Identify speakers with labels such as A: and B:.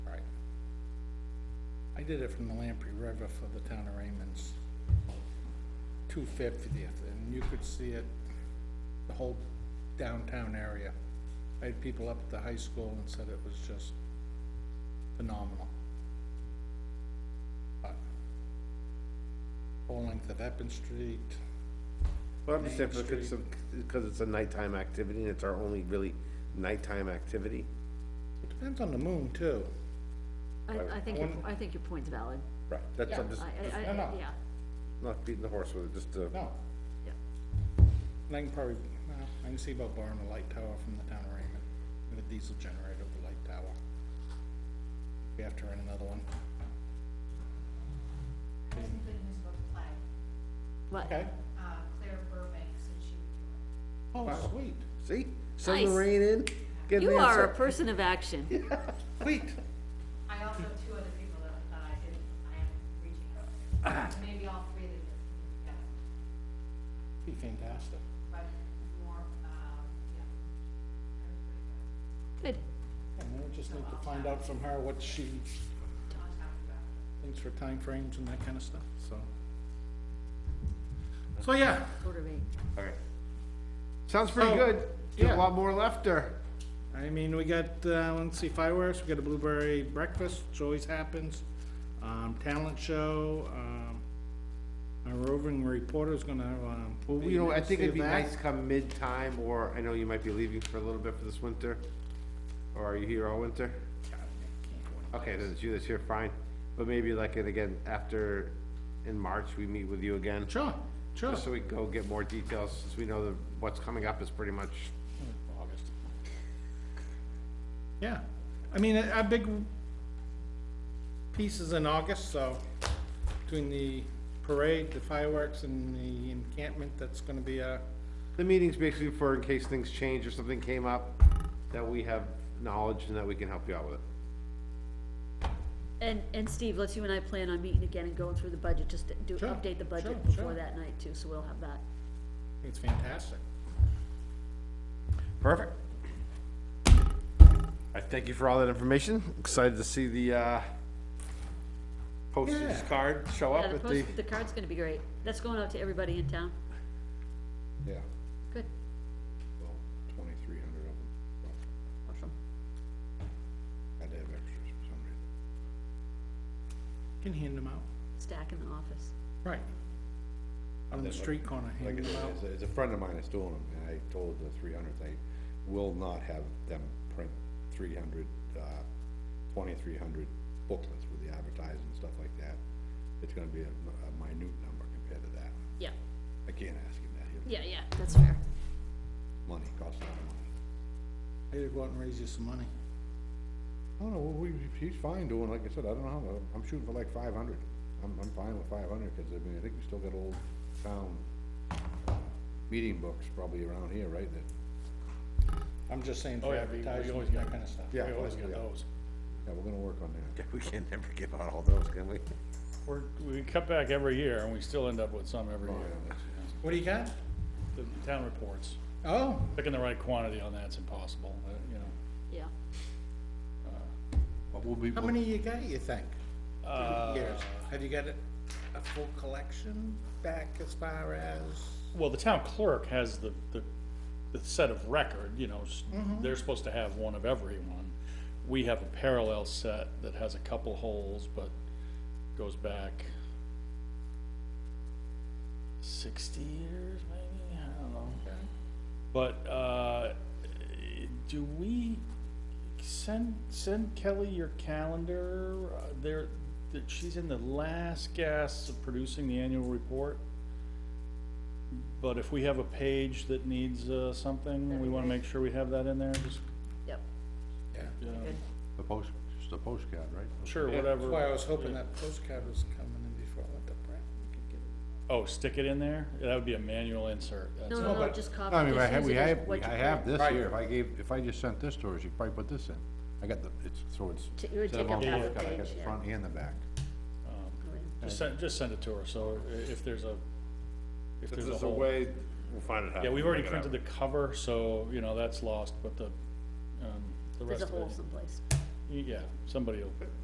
A: I did it from the Lamprey River for the town of Raymond's two fiftieth, and you could see it, the whole downtown area. I had people up at the high school and said it was just phenomenal. But Whole length of Eppin Street,
B: Well, I'm just saying,
A: Main
B: because,
A: Street.
B: because it's a nighttime activity, and it's our only really nighttime activity.
A: depends on the moon too.
C: I, I think, your- I think your point's valid.
B: Right. That's, I'm just,
C: I, I,
A: No, no.
C: I, yeah,
B: not beating the horse with it, just, uh,
A: No,
C: yeah.
A: and I can probably, well, I can see about barring a light tower from the town of Raymond, with a diesel generator with a light tower. We have to rent another one.
D: I was thinking this about the flag,
C: What,
A: Okay,
D: uh, Claire Burbank said she would do it.
A: oh, sweet,
B: see, send the rain in, get an
C: you are a
B: answer.
C: person of action.
A: sweet.
D: I also have two other people that, that I did, I am reaching out to, maybe all three of them, yeah,
A: Be fantastic.
D: but more, um, yeah. Claire's pretty good.
C: Good,
A: And then we just need to find out from her what she
D: On top of that.
A: thinks for timeframes and that kind of stuff, so. So, yeah,
C: quarter of eight.
B: Alright. Sounds pretty
A: So,
B: good, got
A: yeah.
B: a lot more left there.
A: I mean, we got, uh, let's see, fireworks, we got a blueberry breakfast, which always happens, um, talent show, um, our roving reporter's gonna, um.
B: Well,
A: be
B: you know, I
A: next
B: think
A: to
B: it'd be
A: that.
B: nice come mid-time, or I know you might be leaving for a little bit for this winter, or are you here all winter?
A: God, I can't go in.
B: Okay, then it's you that's here, fine, but maybe like, and again, after, in March, we meet with you again.
A: Sure, sure.
B: Just so we can go get more details, since we know that what's coming up is pretty much,
A: August. Yeah, I mean, a a big piece is in August, so between the parade, the fireworks and the encampment, that's gonna be uh, a,
B: the meeting's basically for in case things change or something came up, that we have knowledge and that we can help you out with it.
C: And, and Steve, let's you and I plan on meeting again and going through the budget, just to do,
A: Sure,
C: update the budget
A: sure,
C: before
A: sure.
C: that night too, so we'll have that.
A: it's fantastic.
B: Perfect. I thank you for all that information, excited to see the, uh, postage
A: Yeah.
B: card show
C: Yeah,
B: up
C: the
B: at the.
C: post, the card's gonna be great. That's going out to everybody in town.
B: Yeah,
C: Good,
B: twenty-three hundred of them.
C: awesome.
B: I'd have extras for some reason.
A: Can hand them out,
C: Stack in the office.
A: right. On the
E: Is it like-
A: street corner,
E: Like,
A: hand
E: it's,
A: them out.
E: it's a- it's a friend of mine that's doing them, and I told the three hundred, I will not have them print three hundred, uh, twenty-three hundred booklets with the advertising and stuff like that. It's gonna be a, a minute number compared to that.
C: Yeah,
E: I can't ask him that, he'll,
C: yeah, yeah, that's fair.
E: money costs a lot of money.
A: I gotta go out and raise you some money.
E: I don't know, well, we, he's fine doing, like I said, I don't know, how- I'm shooting for like five hundred. I'm, I'm fine with five hundred, cause I mean, I think we still got old town uh, meeting books probably around here, right, that
A: I'm just saying for advertising and that kind of stuff.
E: Yeah, yeah. Yeah, we're gonna work on that.
B: We can never give out all those, can we?
F: We're, we cut back every year and we still end up with some every year.
A: What do you got?
F: The town reports,
A: Oh,
F: picking the right quantity on that's impossible, uh, you know.
C: Yeah,
E: But we'll be,
A: how many you got, you think?
F: Uh,
A: Years? Have you got a, a full collection back as far as?
F: Well, the town clerk has the, the, the set of record, you know, s- they're supposed to have one of everyone. We have a parallel set that has a couple holes, but goes back sixty years, maybe, I don't know. But, uh, do we send, send Kelly your calendar, Uh, there, that she's in the last gasp of producing the annual report? But if we have a page that needs, uh, something, we wanna make sure we have that in there, just,
C: yep,
A: Yeah.
F: you know,
C: good.
E: the post, just the postcard, right?
F: sure,
A: That's why I
F: whatever.
A: was hoping that postcard was coming in before I went to print. We could get it.
F: Oh, stick it in there? That would be a manual insert. That's
C: No,
F: all.
C: no, no,
A: but-
C: just copy.
E: I mean,
C: just
E: I have,
C: use
E: we
C: it as
E: have,
C: what
E: we-
C: you
E: I
C: print.
E: have this
A: Right.
E: here, if I gave, if I just sent this to her, she'd probably put this in. I got the, it's, so it's.
C: T- it would
E: instead of
C: take up
E: on
C: half a
E: postcard, I got
C: page,
E: the
C: yeah.
E: Front and the back.
F: Just send, just send it to her, so i- if there's a, if
B: If
F: there's a
B: there's a
F: hole.
B: way, we'll find it how.
F: Yeah, we've already
B: Figure it out.
F: printed the cover, so, you know, that's lost, but the, um, the
C: There's
F: rest
C: a
F: of it.
C: hole someplace.
F: Yeah, somebody will